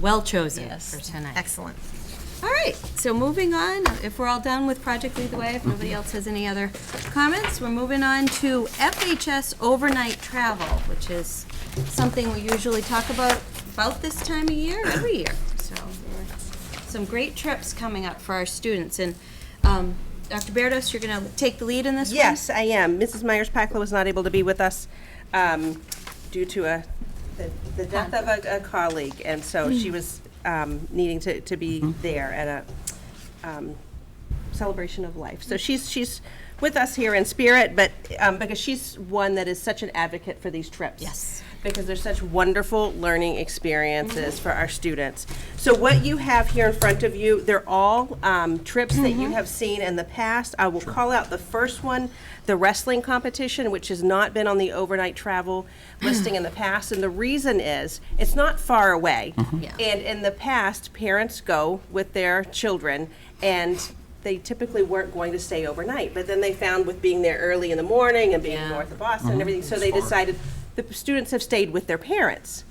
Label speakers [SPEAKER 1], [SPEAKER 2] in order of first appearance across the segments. [SPEAKER 1] well chosen
[SPEAKER 2] Yes.
[SPEAKER 1] for tonight.
[SPEAKER 2] Excellent.
[SPEAKER 1] All right, so moving on, if we're all done with Project Lead the Way, if nobody else has any other comments, we're moving on to FHS overnight travel, which is something we usually talk about about this time of year, every year. So there are some great trips coming up for our students. And um, Dr. Berdos, you're going to take the lead in this one?
[SPEAKER 3] Yes, I am. Mrs. Myers-Pacla was not able to be with us um, due to a, the- the death of a- a colleague, and so
[SPEAKER 1] Hmm.
[SPEAKER 3] she was um, needing to to be
[SPEAKER 1] Mm-hmm.
[SPEAKER 3] there at a um, celebration of life. So she's, she's with us here in spirit, but, um, because she's one that is such an advocate for these trips.
[SPEAKER 1] Yes.
[SPEAKER 3] Because they're such wonderful learning experiences for our students. So what you have here in front of you, they're all, um, trips that you have seen in the past. I will call out the first one, the wrestling competition, which has not been on the overnight travel listing in the past. And the reason is, it's not far away.
[SPEAKER 1] Yeah.
[SPEAKER 3] And in the past, parents go with their children, and they typically weren't going to stay overnight. But then they found with being there early in the morning and being north of Boston and everything, so they decided the students have stayed with their parents.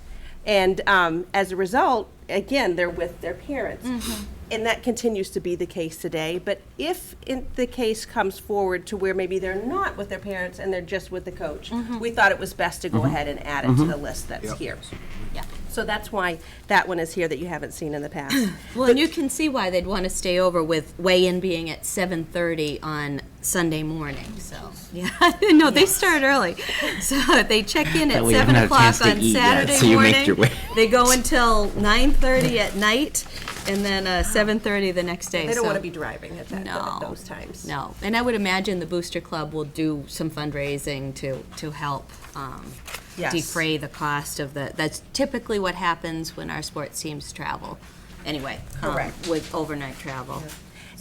[SPEAKER 3] And um, as a result, again, they're with their parents.
[SPEAKER 1] Mm-hmm.
[SPEAKER 3] And that continues to be the case today. But if in the case comes forward to where maybe they're not with their parents and they're just with the coach,
[SPEAKER 1] Mm-hmm.
[SPEAKER 3] we thought it was best to go ahead and add it to the list that's here.
[SPEAKER 1] Yeah.
[SPEAKER 3] So that's why that one is here that you haven't seen in the past.
[SPEAKER 1] Well, and you can see why they'd want to stay over with weigh-in being at 7:30 on Sunday morning, so. Yeah, no, they start early. So they check in at
[SPEAKER 4] way you
[SPEAKER 1] 7
[SPEAKER 4] haven't had a
[SPEAKER 1] o'clock on
[SPEAKER 4] chance to eat yet, so
[SPEAKER 1] Saturday
[SPEAKER 4] you make your
[SPEAKER 1] morning.
[SPEAKER 4] way.
[SPEAKER 1] They go until 9:30 at night and then uh, 7:30 the next day.
[SPEAKER 3] They don't
[SPEAKER 1] so-
[SPEAKER 3] want to be driving at that,
[SPEAKER 1] No.
[SPEAKER 3] at those times.
[SPEAKER 1] No, and I would imagine the Booster Club will do some fundraising to, to help um,
[SPEAKER 3] Yes.
[SPEAKER 1] defray the cost of the, that's typically what happens when our sports teams travel, anyway. um,
[SPEAKER 3] Correct.
[SPEAKER 1] With overnight travel.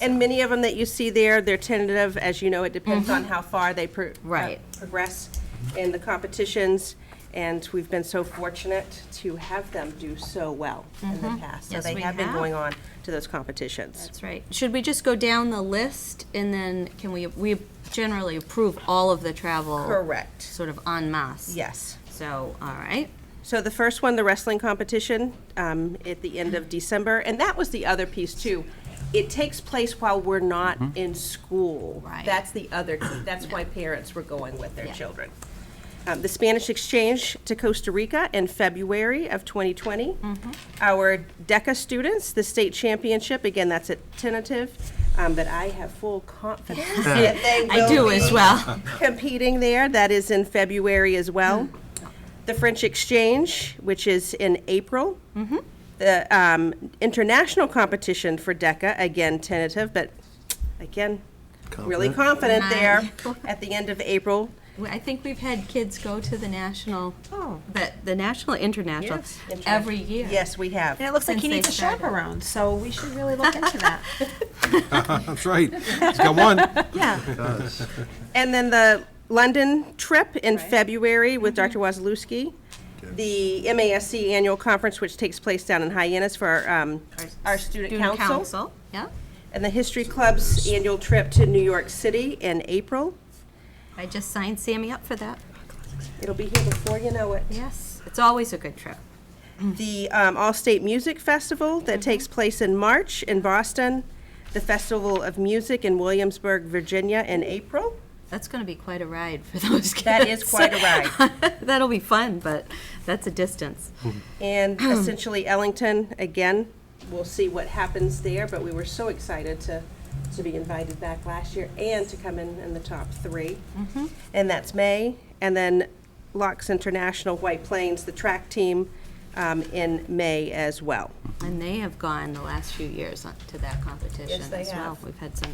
[SPEAKER 3] And many of them that you see there, they're tentative. As you know, it depends on how far they pro-
[SPEAKER 1] Mm-hmm. Right.
[SPEAKER 3] uh, progress in the competitions. And we've been so fortunate to have them do so well in the past.
[SPEAKER 1] Mm-hmm.
[SPEAKER 3] So
[SPEAKER 1] Yes,
[SPEAKER 3] they
[SPEAKER 1] we
[SPEAKER 3] have been
[SPEAKER 1] have.
[SPEAKER 3] going on to those competitions.
[SPEAKER 1] That's right. Should we just go down the list and then can we, we generally approve all of the travel?
[SPEAKER 3] Correct.
[SPEAKER 1] Sort of en masse?
[SPEAKER 3] Yes.
[SPEAKER 1] So, all right.
[SPEAKER 3] So the first one, the wrestling competition, um, at the end of December, and that was the other piece too. It takes place while we're not in school.
[SPEAKER 1] Right.
[SPEAKER 3] That's the other. That's why parents were going with their
[SPEAKER 1] Yeah.
[SPEAKER 3] children. Um, the Spanish exchange to Costa Rica in February of 2020.
[SPEAKER 1] Mm-hmm.
[SPEAKER 3] Our DECA students, the state championship. Again, that's a tentative, um, but I have full confidence that they will
[SPEAKER 1] I do
[SPEAKER 3] be
[SPEAKER 1] as well.
[SPEAKER 3] competing there. That is in February as well. The French Exchange, which is in April. The um, international competition for DECA, again tentative, but again, really confident there at the end of April.
[SPEAKER 1] Well, I think we've had kids go to the national,
[SPEAKER 3] Oh.
[SPEAKER 1] the, the national, international,
[SPEAKER 3] Yes.
[SPEAKER 1] every year.
[SPEAKER 3] Yes, we have.
[SPEAKER 2] And it looks like he
[SPEAKER 1] Since they
[SPEAKER 2] needs a
[SPEAKER 1] started.
[SPEAKER 2] chaperone, so we should really look into that.
[SPEAKER 5] That's right. He's got one.
[SPEAKER 3] And then the London trip in February with Dr. Wazalewski. The MASC annual conference, which takes place down in Hyannis for our, um, our student
[SPEAKER 1] Student
[SPEAKER 3] council.
[SPEAKER 1] council, yeah.
[SPEAKER 3] And the History Club's annual trip to New York City in April.
[SPEAKER 1] I just signed Sammy up for that.
[SPEAKER 3] It'll be here before you know it.
[SPEAKER 1] Yes, it's always a good trip.
[SPEAKER 3] The um, All-State Music Festival that takes place in March in Boston. The Festival of Music in Williamsburg, Virginia in April.
[SPEAKER 1] That's going to be quite a ride for those kids.
[SPEAKER 3] That is quite a ride.
[SPEAKER 1] That'll be fun, but that's a distance.
[SPEAKER 3] And essentially Ellington, again, we'll see what happens there, but we were so excited to, to be invited back last year and to come in in the top 3 And that's May. And then Locks International, White Plains, the track team um, in May as well.
[SPEAKER 1] And they have gone the last few years on- to that competition
[SPEAKER 3] Yes, they
[SPEAKER 1] as well.
[SPEAKER 3] have.
[SPEAKER 1] We've had some,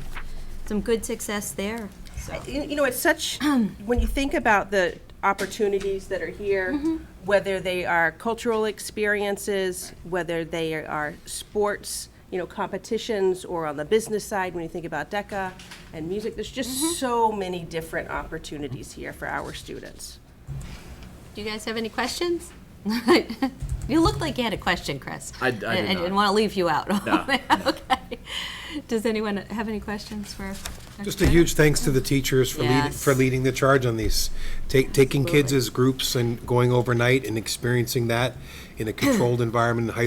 [SPEAKER 1] some good success there, so.
[SPEAKER 3] you you know, it's such, when you think about the opportunities that are here, whether they are cultural experiences, whether they are sports, you know, competitions, or on the business side, when you think about DECA and music, there's just so many different opportunities here for our students.
[SPEAKER 1] Do you guys have any questions? You looked like you had a question, Chris.
[SPEAKER 4] I- I do
[SPEAKER 1] And-
[SPEAKER 4] not.
[SPEAKER 1] And want to leave you out.
[SPEAKER 4] No.
[SPEAKER 1] Okay. Does anyone have any questions for? Dr.
[SPEAKER 5] Just a
[SPEAKER 1] Bennett?
[SPEAKER 5] huge thanks to the teachers for leading,
[SPEAKER 1] Yes.
[SPEAKER 5] for leading the charge on these. Ta- Taking kids as groups and going overnight and experiencing that in a controlled environment in high